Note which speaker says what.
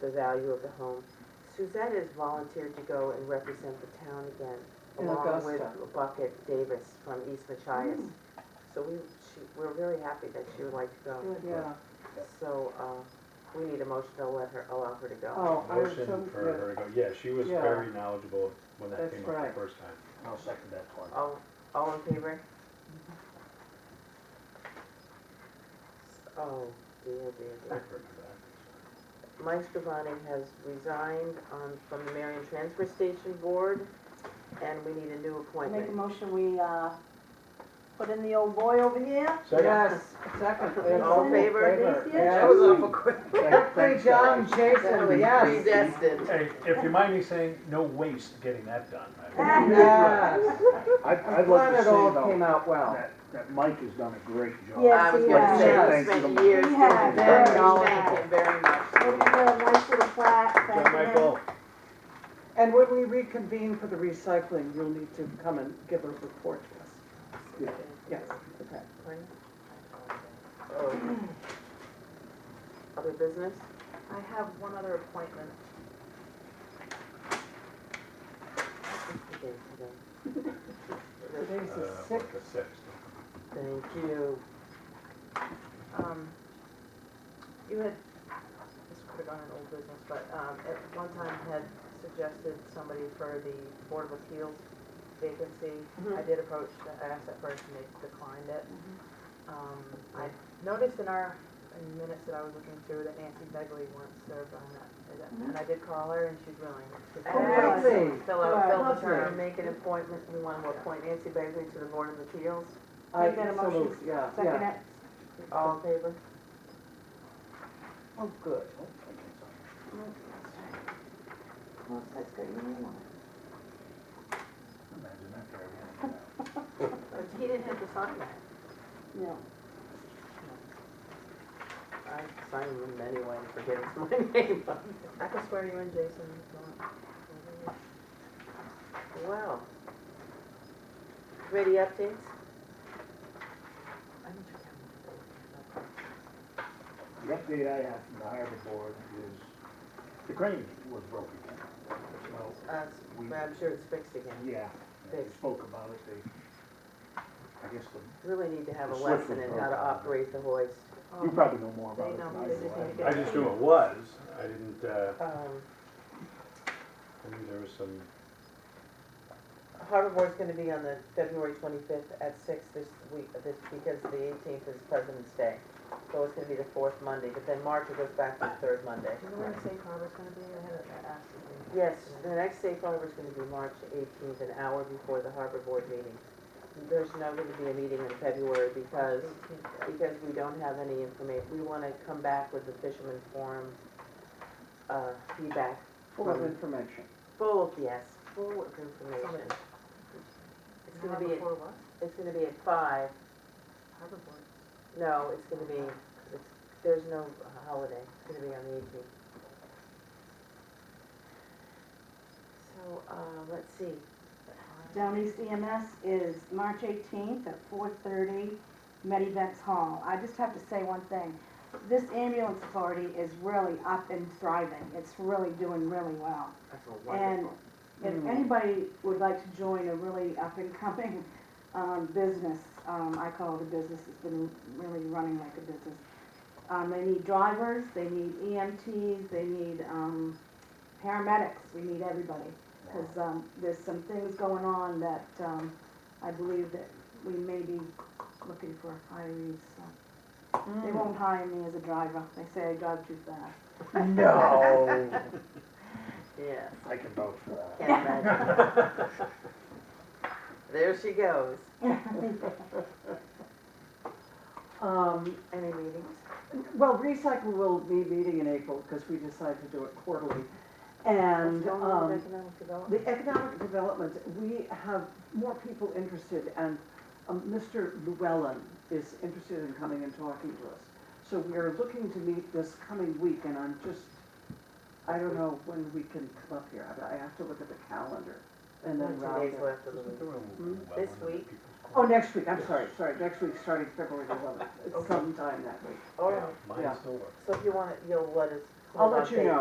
Speaker 1: the value of the home. Suzette has volunteered to go and represent the town again,
Speaker 2: In
Speaker 1: along with
Speaker 2: Augusta. Mm.
Speaker 1: Bucket Davis from East Machias. So we, she, we're very happy that she would like to go.
Speaker 2: Yeah,
Speaker 1: So, uh, we need a motion to let her, allow her to go.
Speaker 2: oh, I was
Speaker 3: Motion
Speaker 2: so,
Speaker 3: for her to go, yeah, she was
Speaker 2: Yeah.
Speaker 3: very knowledgeable when that
Speaker 2: That's
Speaker 3: came up
Speaker 2: right.
Speaker 3: the first time.
Speaker 4: I'll second that part.
Speaker 1: All, all in favor?
Speaker 2: Mm-hmm.
Speaker 1: Oh, dear, dear,
Speaker 3: I
Speaker 1: dear.
Speaker 3: remember that.
Speaker 1: Mike Scavani has resigned on, from the Marion Transfer Station Board, and we need a new
Speaker 5: Make a
Speaker 1: appointment.
Speaker 5: motion, we, uh, put in the old boy over here.
Speaker 2: yes, second. yes.
Speaker 1: All in favor?
Speaker 2: Yes.
Speaker 4: Thanks, John,
Speaker 1: That
Speaker 4: Jason,
Speaker 1: was predestined.
Speaker 3: Hey, if you mind me saying, no waste getting that done. I think.
Speaker 2: Yes.
Speaker 4: I'd,
Speaker 2: I'm
Speaker 4: I'd like
Speaker 2: glad
Speaker 4: to say
Speaker 2: it all came
Speaker 4: though,
Speaker 2: out well.
Speaker 4: that, that Mike has done a great job.
Speaker 5: Yeah.
Speaker 1: I was gonna say,
Speaker 4: Yes,
Speaker 1: he
Speaker 4: he has.
Speaker 1: spent years doing
Speaker 5: Yeah,
Speaker 1: that,
Speaker 2: very
Speaker 1: we
Speaker 2: much.
Speaker 1: thank him very much.
Speaker 5: Maybe a nice little plaque, thank
Speaker 3: John
Speaker 5: you.
Speaker 3: Michael,
Speaker 2: And when we reconvene for the recycling, you'll need to come and give a report to us.
Speaker 4: Yeah.
Speaker 2: Yes, okay.
Speaker 1: Oh. Other business?
Speaker 6: I have one other appointment.
Speaker 2: Today's
Speaker 3: uh,
Speaker 2: the sixth.
Speaker 3: the sixth.
Speaker 1: Thank you.
Speaker 6: Um, You had, this could have gone in old business, but um, at one time had suggested somebody for the Board of Appeals vacancy. I did approach, the- I asked that person, they declined it. Um, I noticed in our in minutes that I was looking through that Nancy Begley once served on that, and I did call her and she's willing. She's
Speaker 1: Oh,
Speaker 6: willing to
Speaker 2: really?
Speaker 6: Fill out, fill the
Speaker 2: Lovely.
Speaker 6: term.
Speaker 1: Turn, make an appointment, we want to appoint Nancy Bagley to the Board of Appeals.
Speaker 2: I
Speaker 5: Make that a
Speaker 2: so
Speaker 5: motion.
Speaker 2: moved, Yeah,
Speaker 5: Second
Speaker 2: yeah.
Speaker 5: it.
Speaker 1: All in favor?
Speaker 2: Oh, good.
Speaker 5: Well, that's good, you need one.
Speaker 4: Imagine that guy running around.
Speaker 1: He didn't have to sign that.
Speaker 5: No.
Speaker 1: I signed them anyway and forget it's my name.
Speaker 6: I can swear you in, Jason, if you want.
Speaker 1: Wow. Committee updates?
Speaker 4: The update I have from the harbor board is the crane was broken. So,
Speaker 1: Uh,
Speaker 4: we,
Speaker 1: but I'm sure it's fixed again.
Speaker 4: yeah, they
Speaker 1: Fixed.
Speaker 4: spoke about it, they, I guess the,
Speaker 1: Really need to have a
Speaker 4: The slip
Speaker 1: lesson in
Speaker 4: was
Speaker 1: how to
Speaker 4: broken.
Speaker 1: operate the hoist. Oh. Um,
Speaker 4: you probably know more about
Speaker 6: They
Speaker 4: it
Speaker 6: know,
Speaker 4: than I
Speaker 6: they just need to
Speaker 4: do.
Speaker 6: get-
Speaker 4: I-
Speaker 3: I just knew it was, I didn't, uh,
Speaker 1: Um,
Speaker 3: I knew there was some,
Speaker 1: Harbor Board's gonna be on the February twenty-fifth at six this week, this, because the eighteenth is President's Day. So it's gonna be the fourth Monday, but then March it goes back to the third Monday.
Speaker 6: Do you know when the safe harbor's gonna be? I had it asked.
Speaker 1: Yes, the next safe harbor is gonna be March eighteenth, an hour before the harbor board meeting. There's not gonna be a meeting in February because, because we don't have any information. We wanna come back with the fisherman forum, uh, feedback,
Speaker 2: Full of information.
Speaker 1: full of, yes, full of information. It's gonna be,
Speaker 6: Before what?
Speaker 1: it's gonna be at five,
Speaker 6: Harbor Board.
Speaker 1: no, it's gonna be, it's, there's no holiday, it's gonna be on the eighteenth. So, uh, let's see,
Speaker 5: Down East EMS E is March eighteenth at four thirty, Medivex Hall. I just have to say one thing. This ambulance authority is really up and thriving. It's really doing really well.
Speaker 1: that's a
Speaker 5: And
Speaker 1: wonderful.
Speaker 5: if
Speaker 2: Mm.
Speaker 5: anybody would like to join a really up and coming, um, business, um, I call it a business, it's been really running like a business. Um, they need drivers, they need EMTs, they need, um, paramedics, we need everybody. Cause, um, there's some things going on that, um, I believe that we may be looking for hirees, so. They won't hire me as a driver, they say I drive too fast.
Speaker 4: No,
Speaker 1: Yes,
Speaker 4: I can vouch for that.
Speaker 1: can't imagine. There she goes.
Speaker 2: Um,
Speaker 1: Any meetings?
Speaker 2: Well, recycle will be meeting in April because we decided to do it quarterly.
Speaker 1: What's
Speaker 2: And
Speaker 1: going on with
Speaker 2: um,
Speaker 1: economic development?
Speaker 2: the economic development, we have more people interested and um, Mr. Llewellyn is interested in coming and talking to us. So we are looking to meet this coming week and I'm just, I don't know when we can come up here. I I have to look at the calendar and then
Speaker 1: Two
Speaker 2: round
Speaker 1: days
Speaker 2: it.
Speaker 1: left of the week.
Speaker 3: Isn't there a-
Speaker 2: Hmm?
Speaker 3: well,
Speaker 1: This
Speaker 3: one of the
Speaker 1: week?
Speaker 3: people's
Speaker 2: Oh,
Speaker 3: calls?
Speaker 2: next week, I'm sorry, sorry, next week, starting February 11th. It's
Speaker 1: Okay.
Speaker 2: sometime that week.
Speaker 1: All right,
Speaker 3: Yeah, Mine
Speaker 2: Yeah.
Speaker 3: still works.
Speaker 1: so if you want it, you'll let us.
Speaker 2: I'll let you
Speaker 1: update.
Speaker 2: know.